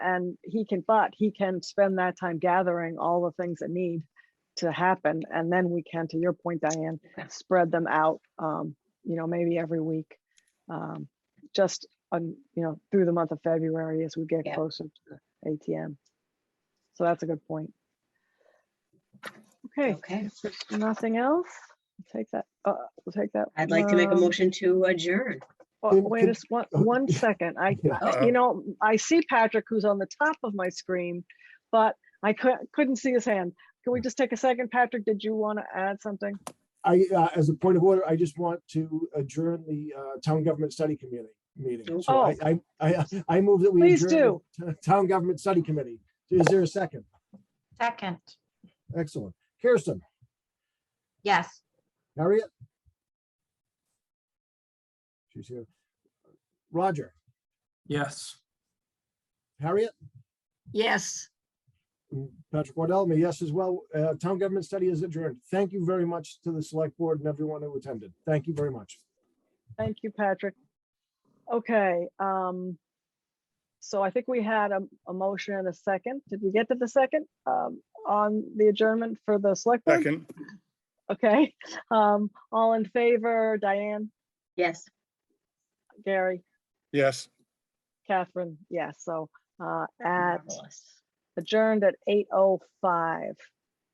and he can, but he can spend that time gathering all the things that need to happen. And then we can, to your point, Diane, Okay. spread them out, um, you know, maybe every week. Um, just on, you know, through the month of February as we get Yeah. closer to the ATM. So that's a good point. Okay, Okay, if there's nothing else, We'll take that, uh, we'll take that. I'd like to make a um, motion to adjourn. Oh, well, Can- Wait can- just one, one second. I, Yeah. I- you know, I see Patrick who's on the top of my screen, but I couldn't, couldn't see his hand. Can Hmm. we just take a second? Patrick, did you want to add something? I, uh, as a point of order, I just want to adjourn the uh, Town Government Study Committee meeting. So I, I, I I move that we Please adjourn the Town Government Study Committee. Is there a second? Second, Excellent. Kirsten, yes. Harriet? She's here. Roger, Yes. Harriet, Yes. and Patrick Waddell, me yes as well. Uh, Town Government Study is adjourned. Thank you very much to the Select Board and everyone who attended. Thank you very much. Thank you, Patrick. Okay, um, so I think we had a, a motion and a second. Did we get to the second, um, on the adjournment for the select board? Second, Okay, um, all in favor, Diane, Yes. Gary, yes. Catherine, yes, so, uh, at Marvelous. adjourned at eight oh five.